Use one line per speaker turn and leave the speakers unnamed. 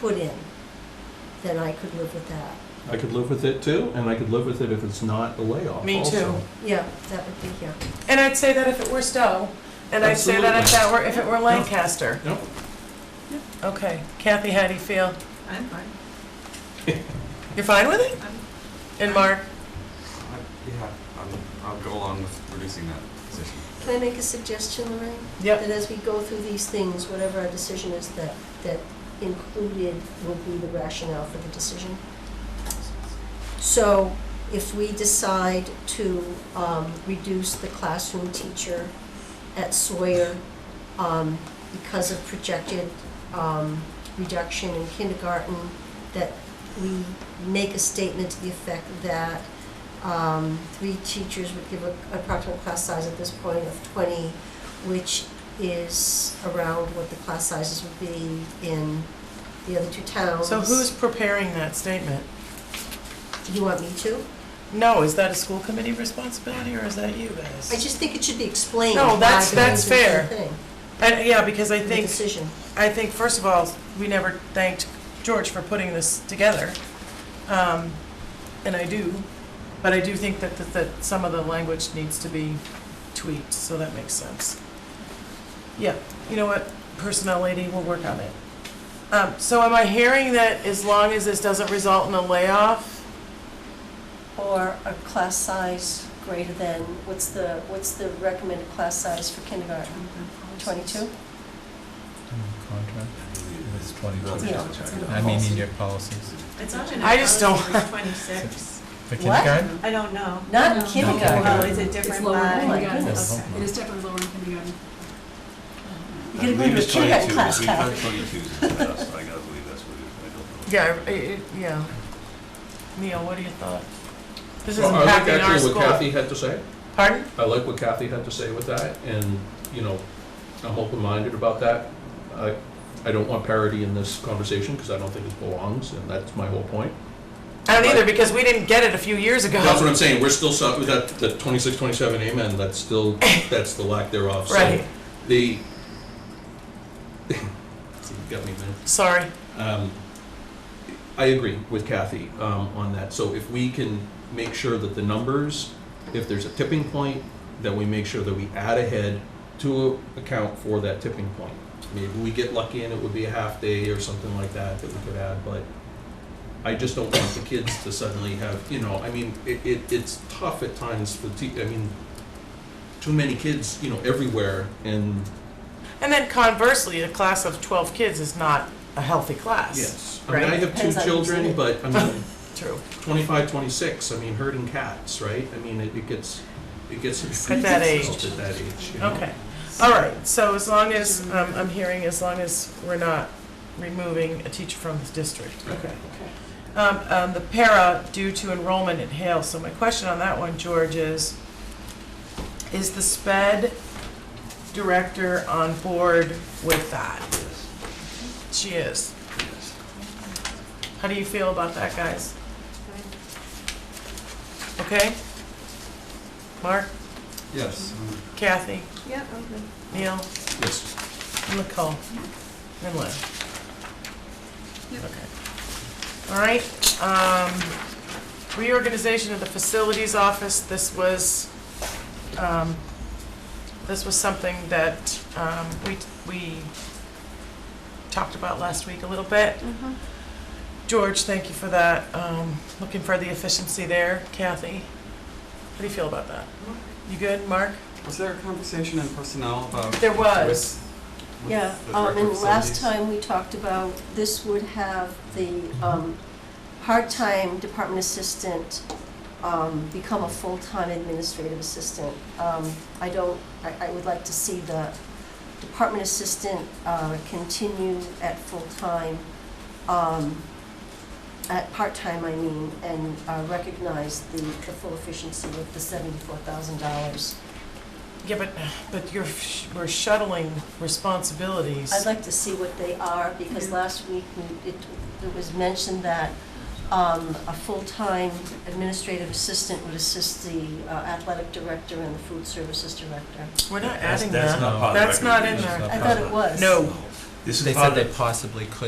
put in, then I could live with that.
I could live with it too, and I could live with it if it's not a layoff.
Me
also.
too.
Yeah, that would be, yeah.
And I'd say that if it were Stowe, and I'd say that if that were, if it were Lancaster.
Yep.
Okay, Kathy, how do you feel?
I'm fine.
You're fine with it?
I'm-
And Mark?
I- Yeah, I'll, I'll go along with reducing that position.
Can I make a suggestion, Lorraine?
Yep.
That as we go through these things, whatever our decision is, that, that included will be the rationale for the decision. So if we decide to um, reduce the classroom teacher at Sawyer um, because of projected um, reduction in kindergarten, that we make a statement to the effect that um, three teachers would give a- approximate class size at this point of 20, which is around what the class sizes would be in the other two towns.
So who's preparing that statement?
You want me to?
No, is that a school committee responsibility, or is that you guys?
I just think it should be explained.
No,
why
that's-
they're
that's
doing the
fair.
thing,
And, yeah, because I
The
think,
decision.
I think, first of all, we never thanked George for putting this together. Um, and I do, but I do think that, that, that some of the language needs to be tweaked, so that makes sense. Yeah, you know what, personnel lady, we'll work on it. Um, so am I hearing that as long as this doesn't result in a layoff,
Or a class size greater than, what's the, what's the recommended class size for kindergarten? Twenty-two?
contract? It's
That's
twenty-two.
Yeah.
another check.
I mean, in your policies.
It's not in
I just don't-
our twenty-six.
For
What?
kindergarten?
I don't know.
Not in
No.
kindergarten.
Well, is it different
lower
Oh,
than
my
by?
kindergarten.
goodness.
It is definitely lower in kindergarten.
You're gonna go into a kindergarten class,
We've
Kyle.
had twenty-twos in the past, I gotta believe that's what it is, I
Yeah, I- I- I- yeah. Neil, what do you thought? This is
Well, I like
impacting
actually
our
what
school.
Kathy had to say.
Pardon?
I like what Kathy had to say with that, and, you know, I'm open-minded about that. I, I don't want parity in this conversation, because I don't think it belongs, and that's my whole point.
I don't either, because we didn't get it a few years ago.
That's what I'm saying, we're still, sub- that, that twenty-six, twenty-seven, amen, that's still, that's the lack thereof. So
Right,
The, See, you got me there.
sorry.
Um, I agree with Kathy um, on that. So if we can make sure that the numbers, if there's a tipping point, that we make sure that we add ahead to account for that tipping point. Maybe we get lucky and it would be a half day or something like that that we could add, but I just don't want the kids to suddenly have, you know, I mean, it, it, it's tough at times for, te- I mean, too many kids, you know, everywhere and,
And then conversely, a class of 12 kids is not a healthy class.
yes. I mean, I
Right.
have two
Depends on who's in
children,
it.
but I mean,
True.
25, 26, I mean, herding cats, right? I mean, it, it gets, it gets.
At that age.
At that age, you know?
Okay. All right, so as long as, um, I'm hearing, as long as we're not removing a teacher from this district. Okay. Um, um, The para due to enrollment at Hale, so my question on that one, George, is, is the sped director on board with that?
Yes.
She is.
believe. Yes.
How do you feel about that, guys? Okay? Mark,
Yes.
Kathy,
Yeah, I'm good.
Neil,
Mm-hmm.
Yes.
Nicole, and Lynn.
Yep.
Okay. All right, um, reorganization of the facilities office, this was, um, this was something that, um, we, we talked about last week a little bit.
Uh-huh.
George, thank you for that. Um, looking for the efficiency there. Kathy, how do you feel about that? You good, Mark?
Was there a conversation in personnel about?
There was.
with- with
Yeah,
the
um,
director
and
of
last
facilities?
time we talked about, this would have the, um, part-time department assistant, um, become a full-time administrative assistant. Um, I don't, I, I would like to see the department assistant, uh, continue at full-time, um, at part-time, I mean, and, uh, recognize the, the full efficiency with the seventy-four thousand dollars.
Yeah, but, but you're, sh- we're shuttling responsibilities.
I'd like to see what they are, because last week, we- it, it was mentioned that um, a full-time administrative assistant would assist the uh, athletic director and the food services director.
We're not
That's-
adding
that's
that.
not part
That's not in
That's
there.
not
I thought it was.
No.
They said they possibly could